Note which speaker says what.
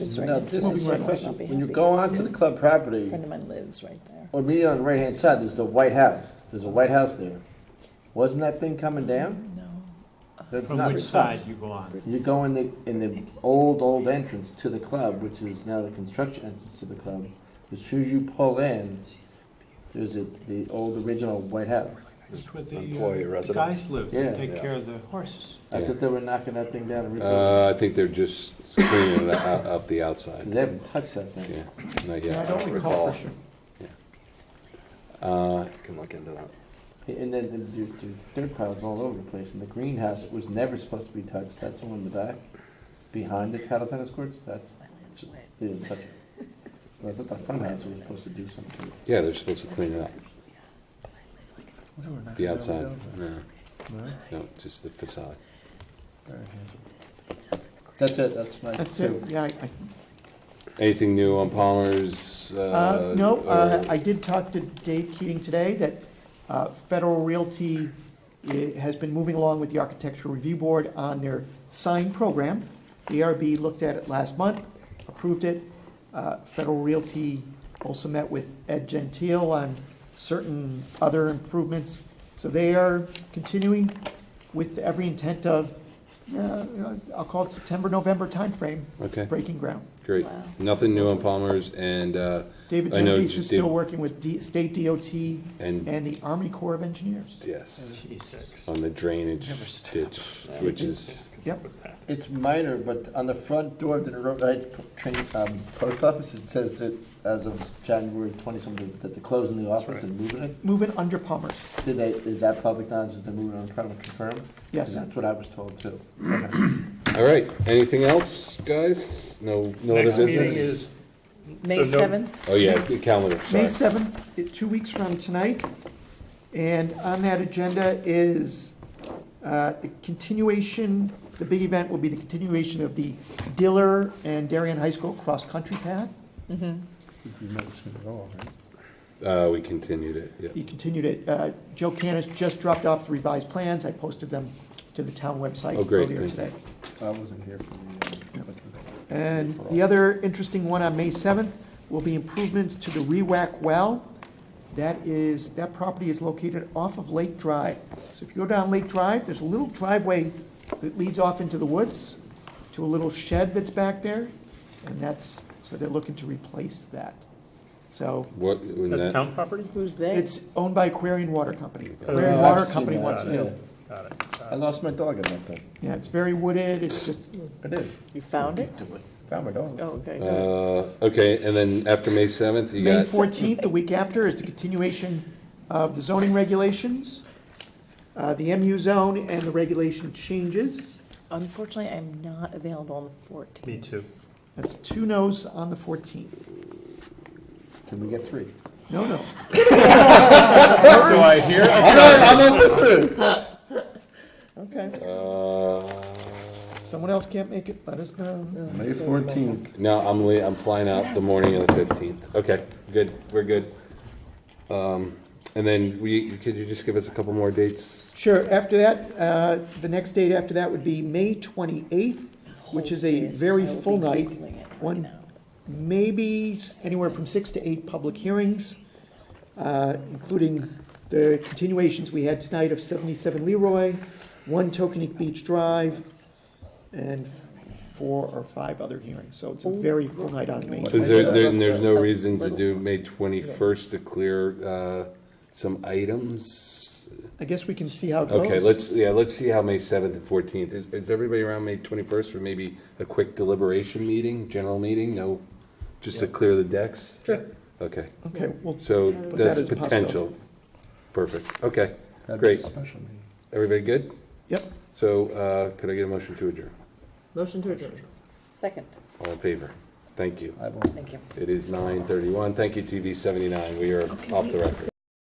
Speaker 1: It's right
Speaker 2: Now,
Speaker 1: next to
Speaker 2: this
Speaker 1: my
Speaker 2: is my
Speaker 1: shit, must
Speaker 2: question.
Speaker 1: not be
Speaker 2: When you
Speaker 1: happy.
Speaker 2: go onto the club property,
Speaker 1: Friend of mine lives right there.
Speaker 2: or me on the right-hand side, there's the White House. There's a White House there. Wasn't that thing coming down?
Speaker 1: No.
Speaker 2: That's
Speaker 3: From
Speaker 2: not
Speaker 3: which
Speaker 2: the club.
Speaker 3: side you go on?
Speaker 2: You go in the, in the old, old entrance to the club, which is now the construction entrance to the club. As soon as you pull in, there's a, the old original White House.
Speaker 3: It's where the
Speaker 4: Employee
Speaker 3: uh,
Speaker 4: residence.
Speaker 3: guys live, they
Speaker 2: Yeah.
Speaker 3: take
Speaker 4: Yeah.
Speaker 3: care of the horses.
Speaker 2: I thought they were knocking that thing down and rebuilding.
Speaker 4: Uh, I think they're just cleaning it out, up the outside,
Speaker 2: They haven't touched that thing.
Speaker 4: yeah, not
Speaker 3: I
Speaker 4: yet.
Speaker 3: don't recall for sure.
Speaker 4: Uh, can look into that.
Speaker 2: And then the, the the dirt piles all over the place, and the greenhouse was never supposed to be touched, that's the one in the back, behind the paddle tennis courts, that's, they didn't touch it. And I thought the front house was supposed to do something.
Speaker 4: Yeah, they're supposed to clean it up, the outside, no, no, just the facade.
Speaker 2: That's it, that's my
Speaker 5: That's
Speaker 2: two.
Speaker 5: it, yeah. I-
Speaker 4: Anything new on Palmer's,
Speaker 5: I-
Speaker 4: uh?
Speaker 5: uh, No, uh,
Speaker 4: or-
Speaker 5: I did talk to Dave Keating today that uh, Federal Realty i- has been moving along with the Architectural Review Board on their sign program. The ARB looked at it last month, approved it. Uh, Federal Realty also met with Ed Gentile on certain other improvements. So they are continuing with every intent of, uh, I'll call it September, November timeframe,
Speaker 4: Okay,
Speaker 5: breaking ground.
Speaker 4: great,
Speaker 1: Wow.
Speaker 4: nothing new on Palmer's and, uh,
Speaker 5: David
Speaker 4: I know
Speaker 5: Dimmitis
Speaker 4: J-
Speaker 5: is still
Speaker 4: David-
Speaker 5: working with D- state DOT
Speaker 4: and,
Speaker 5: and the Army Corps of Engineers.
Speaker 4: yes,
Speaker 3: Jesus.
Speaker 4: on the drainage
Speaker 3: Never stops.
Speaker 4: ditch, which is,
Speaker 5: Yep.
Speaker 2: It's minor, but on the front door of the roadside train, um, post office, it says that as of January twenty-something, that they're closing the office and moving it.
Speaker 5: Moving under Palmer's,
Speaker 2: Did they, is that public knowledge that they're moving on, trying to confirm?
Speaker 5: yes.
Speaker 2: That's what I was told too.
Speaker 4: all right, anything else, guys? No, no other
Speaker 6: Next
Speaker 4: business?
Speaker 6: meeting is,
Speaker 1: May
Speaker 6: So no-
Speaker 1: seventh,
Speaker 4: Oh, yeah, the calendar,
Speaker 5: May
Speaker 4: sorry.
Speaker 5: 7th, i- two weeks from tonight. And on that agenda is uh, the continuation, the big event will be the continuation of the Diller and Darien High School cross-country path.
Speaker 2: Mm-hmm.
Speaker 4: Uh, we continued it, yeah.
Speaker 5: He continued it. Uh, Joe Canis just dropped off the revised plans. I posted them to the town website
Speaker 4: Oh, great,
Speaker 5: earlier
Speaker 4: thank you.
Speaker 5: today.
Speaker 2: I wasn't here for the, uh,
Speaker 5: And the other interesting one on May 7th will be improvements to the Rewack Well. That is, that property is located off of Lake Drive. So if you go down Lake Drive, there's a little driveway that leads off into the woods to a little shed that's back there, and that's, so they're looking to replace that. So
Speaker 4: What, when
Speaker 6: that's
Speaker 4: that,
Speaker 6: town property?
Speaker 1: who's they?
Speaker 5: it's owned by Aquarian Water Company.
Speaker 4: Oh,
Speaker 5: Aquarian
Speaker 6: I've
Speaker 5: Water
Speaker 2: seen
Speaker 5: Company
Speaker 2: that,
Speaker 5: wants to
Speaker 2: yeah.
Speaker 5: do.
Speaker 6: Got it.
Speaker 2: I lost my dog at that thing.
Speaker 5: Yeah, it's very wooded, it's just,
Speaker 2: I did.
Speaker 1: You found it?
Speaker 2: Found my dog.
Speaker 1: Oh, okay, good.
Speaker 4: uh, okay, and then after May seventh, you
Speaker 5: May
Speaker 4: got,
Speaker 5: 14th, the week after, is the continuation of the zoning regulations, uh, the MU zone and the regulation changes.
Speaker 1: Unfortunately, I'm not available on the fourteenth.
Speaker 6: Me too.
Speaker 5: That's two no's on the 14th.
Speaker 2: Can we get three?
Speaker 5: No, no.
Speaker 6: Do I hear?
Speaker 5: Okay.
Speaker 4: uh,
Speaker 5: Someone else can't make it, let us know.
Speaker 2: May fourteenth.
Speaker 4: no, I'm lea- I'm flying out the morning of the fifteenth. Okay, good, we're good. Um, and then we, could you just give us a couple more dates?
Speaker 5: Sure, after that, uh, the next date after that would be May 28th, which is a very full night. One- maybe s- anywhere from six to eight public hearings, uh, including the continuations we had tonight of 77 Leroy, 1 Tokenic Beach Drive, and four or five other hearings. So it's a very full night on May.
Speaker 4: Is there, there, and there's no reason to do May twenty-first to clear, uh, some items?
Speaker 5: I guess we can see how it goes.
Speaker 4: Okay, let's, yeah, let's see how May seventh and fourteenth, is, is everybody around May twenty-first for maybe a quick deliberation meeting, general meeting, no? Just to clear the decks?
Speaker 5: Sure.
Speaker 4: Okay,
Speaker 5: Okay, well,
Speaker 4: so
Speaker 5: But
Speaker 4: that's
Speaker 5: that is possible.
Speaker 4: potential. Perfect, okay, Great.
Speaker 2: Special meeting.
Speaker 4: everybody good?
Speaker 5: Yep.
Speaker 4: So, uh, could I get a motion to adjourn?
Speaker 1: Motion to adjourn. Second,
Speaker 4: All in favor? Thank you.
Speaker 2: I will
Speaker 1: thank you.
Speaker 4: It is nine thirty-one, thank you, TV seventy-nine, we are off the record.